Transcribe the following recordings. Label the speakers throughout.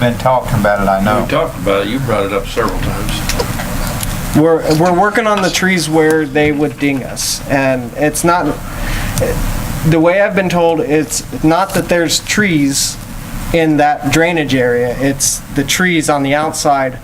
Speaker 1: Been talking about it, I
Speaker 2: We
Speaker 1: know.
Speaker 2: talked about it, you brought it up several times.
Speaker 3: We're, we're working on the trees where they would ding us, and it's not, the way I've been told, it's not that there's trees in that drainage area, it's the trees on the outside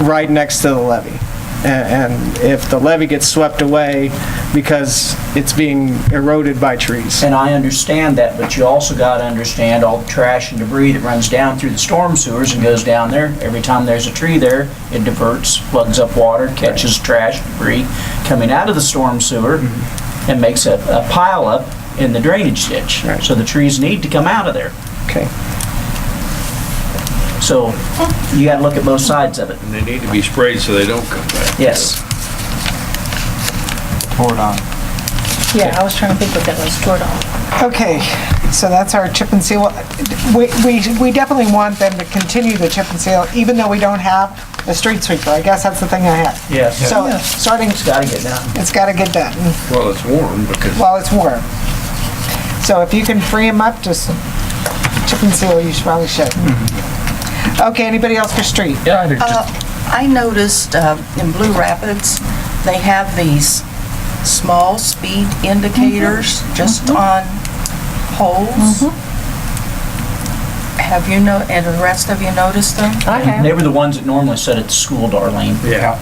Speaker 3: right next to the levee. A- And if the levee gets swept away because it's being eroded by trees.
Speaker 4: And I understand that, but you also got to understand all the trash and debris that runs down through the storm sewers and goes down there. Every time there's a tree there, it diverts, plugs up water, catches trash, debris coming out of the storm sewer
Speaker 5: Mm-hmm.
Speaker 4: and makes a a pile up in the drainage ditch.
Speaker 3: Right.
Speaker 4: So the trees need to come out of there.
Speaker 3: Okay.
Speaker 4: So you got to look at both sides of it.
Speaker 2: And they need to be sprayed so they don't come back.
Speaker 4: Yes.
Speaker 1: Hold on.
Speaker 6: Yeah, I was trying to think what that was, Jordan.
Speaker 7: Okay, so that's our chip and seal. We, we, we definitely want them to continue the chip and seal, even though we don't have a street sweeper. I guess that's the thing I have.
Speaker 4: Yes.
Speaker 7: So starting,
Speaker 4: It's got to get done.
Speaker 7: it's gotta get done
Speaker 2: Well, it's warm because
Speaker 7: while it's warm. So if you can free them up, just chip and seal, you should- probably should. Okay, anybody else for street?
Speaker 5: Yeah, I did just-
Speaker 8: Uh, I noticed uh, in Blue Rapids, they have these small speed
Speaker 4: Mm-hmm.
Speaker 8: indicators just on poles.
Speaker 4: Mm-hmm.
Speaker 8: Have you know, and the rest of you noticed them?
Speaker 6: I have.
Speaker 4: They were the ones that normally sit at the school, Darlene.
Speaker 2: Yeah.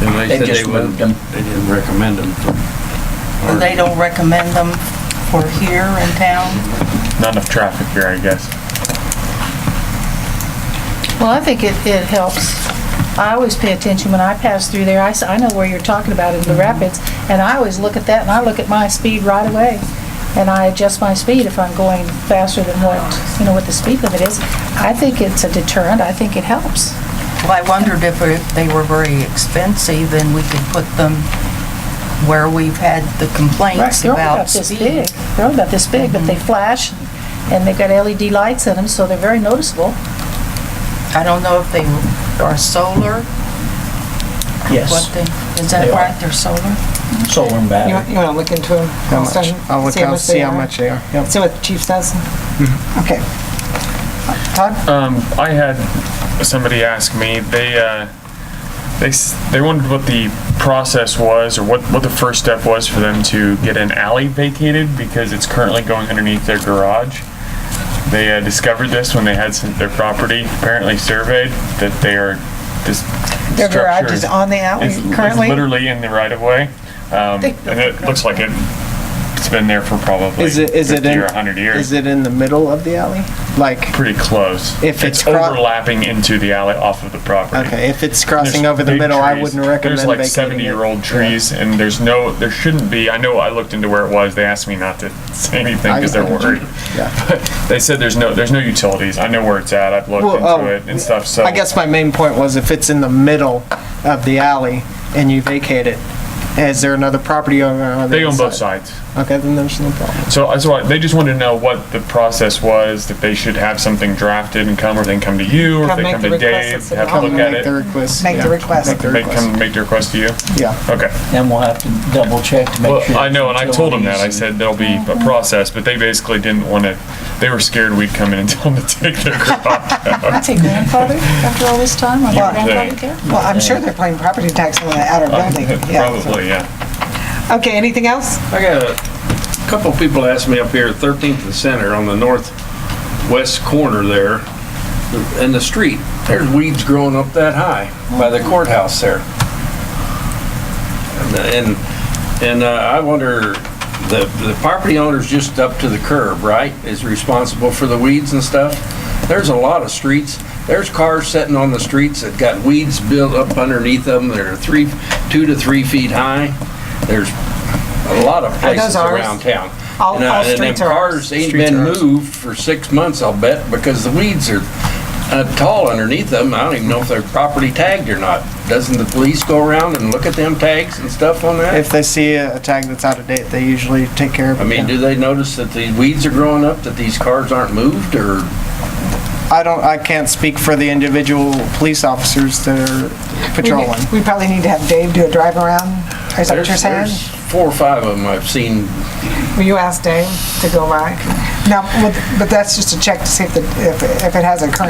Speaker 2: And they
Speaker 4: They
Speaker 2: said
Speaker 4: just
Speaker 2: they wouldn't,
Speaker 4: moved them.
Speaker 2: they didn't recommend them.
Speaker 8: Or They don't recommend them for here in town?
Speaker 5: not enough traffic here, I guess.
Speaker 6: Well, I think it, it helps. I always pay attention when I pass through there. I, s- I know where you're talking about in the rapids, and I always look at that, and I look at my speed right away. And I adjust my speed if I'm going faster than what, you know, what the speed limit is. I think it's a deterrent. I think it helps.
Speaker 8: Well, I wondered if if they were very expensive and we could put them where we've had the complaints
Speaker 6: They're only
Speaker 8: about
Speaker 6: this
Speaker 8: speed.
Speaker 6: big. They're only about this big, but they flash, and they've got LED lights in them, so they're very noticeable.
Speaker 8: I don't know if they are solar, what
Speaker 4: Yes.
Speaker 8: they, is
Speaker 4: They
Speaker 8: that
Speaker 4: are.
Speaker 8: right, they're solar?
Speaker 4: Solar and
Speaker 7: You
Speaker 4: battery.
Speaker 7: want, you wanna look into them?
Speaker 3: How much? I'll look out, see how much they are. Yep.
Speaker 7: See what the chief says? Okay. Todd?
Speaker 5: Um, I had somebody ask me, they, uh, they, s- they wondered what the process was or what, what the first step was for them to get an alley vacated because it's currently going underneath their garage. They uh, discovered this when they had some, their property apparently surveyed that they are this.
Speaker 7: Their garage
Speaker 5: structure
Speaker 7: is on the alley
Speaker 5: is- is
Speaker 7: currently?
Speaker 5: Literally in the right of way. Um,
Speaker 6: They-
Speaker 5: and it looks like it, it's been there for probably
Speaker 3: Is it, is it
Speaker 5: fifty
Speaker 3: in?
Speaker 5: or a hundred years.
Speaker 3: Is it in the middle of the alley? Like,
Speaker 5: pretty close.
Speaker 3: If it's cro-
Speaker 5: overlapping into the alley off of the property.
Speaker 3: Okay, if it's
Speaker 5: There's
Speaker 3: crossing over the
Speaker 5: big
Speaker 3: middle, I
Speaker 5: trees.
Speaker 3: wouldn't recommend
Speaker 5: There's like
Speaker 3: vacating it.
Speaker 5: seventy-year-old trees, and there's no, there shouldn't be. I know I looked into where it was. They asked me not to say anything because
Speaker 3: I-
Speaker 5: they're worried.
Speaker 3: Yeah.
Speaker 5: But they said there's no, there's no utilities. I know where it's at. I've looked
Speaker 3: Well,
Speaker 5: into
Speaker 3: oh,
Speaker 5: it and stuff. So
Speaker 3: I guess my main point was if it's in the middle of the alley and you vacate it, is there another property owner on the
Speaker 5: they
Speaker 3: other
Speaker 5: own both
Speaker 3: side?
Speaker 5: sides.
Speaker 3: Okay, then there's no problem.
Speaker 5: So that's why they just wanted to know what the process was. That they should have something drafted and come, or they can come to you, or if
Speaker 7: Come
Speaker 5: they
Speaker 7: make
Speaker 5: come
Speaker 7: the
Speaker 5: to
Speaker 7: request,
Speaker 5: Dave,
Speaker 7: it's a
Speaker 5: have a
Speaker 3: Come
Speaker 5: look
Speaker 3: and
Speaker 5: at
Speaker 3: make the
Speaker 5: it.
Speaker 3: request.
Speaker 7: Make the
Speaker 3: yeah.
Speaker 7: request.
Speaker 3: Make the
Speaker 5: Make, come
Speaker 3: request.
Speaker 5: make the request to you.
Speaker 3: Yeah,
Speaker 5: Okay.
Speaker 4: Then we'll have to double check to make sure.
Speaker 5: Well, I know, and I told them that. I
Speaker 4: utilities and-
Speaker 5: said there'll be a process, but they basically didn't want to, they were scared we'd come in and tell them to take their crop out.
Speaker 6: That's a grandfather after all this time, or
Speaker 5: Yeah.
Speaker 6: grandfather care?
Speaker 7: Well, I'm sure they're playing property tax on the outer building. yeah.
Speaker 5: Uh, Probably, yeah.
Speaker 7: Okay, anything else?
Speaker 2: I got a couple people asked me up here, 13th and Center, on the northwest corner there, in the street, there's weeds growing up that high by the courthouse there. And, and- and uh, I wonder, the, the property owner's just up to the curb, right, is responsible for the weeds and stuff? There's a lot of streets, there's cars sitting on the streets that got weeds built up underneath them, that are three, two to three feet high. There's a lot of
Speaker 7: Are those
Speaker 2: places
Speaker 7: ours?
Speaker 2: around town.
Speaker 7: All-
Speaker 2: And, uh,
Speaker 7: all
Speaker 2: and them
Speaker 7: streets are ours.
Speaker 2: cars ain't
Speaker 3: Streets
Speaker 2: been
Speaker 3: are ours.
Speaker 2: moved for six months, I'll bet, because the weeds are uh, tall underneath them. I don't even know if they're properly tagged or not. Doesn't the police go around and look at them tags and stuff on that?
Speaker 3: if they see a a tag that's out of date, they usually take care of it.
Speaker 2: I mean,
Speaker 3: yeah.
Speaker 2: do they notice that the weeds are growing up, that these cars aren't moved, or?
Speaker 3: I don't, I can't speak for the individual police officers that are
Speaker 7: We
Speaker 3: patrolling.
Speaker 7: need- We probably need to have Dave do a drive around, is that what you're
Speaker 2: There's-
Speaker 7: saying?
Speaker 2: there's Four or five of them I've seen.
Speaker 7: Will you ask Dave to go by? Now, with- but that's just a check to see if, the- if if it has a current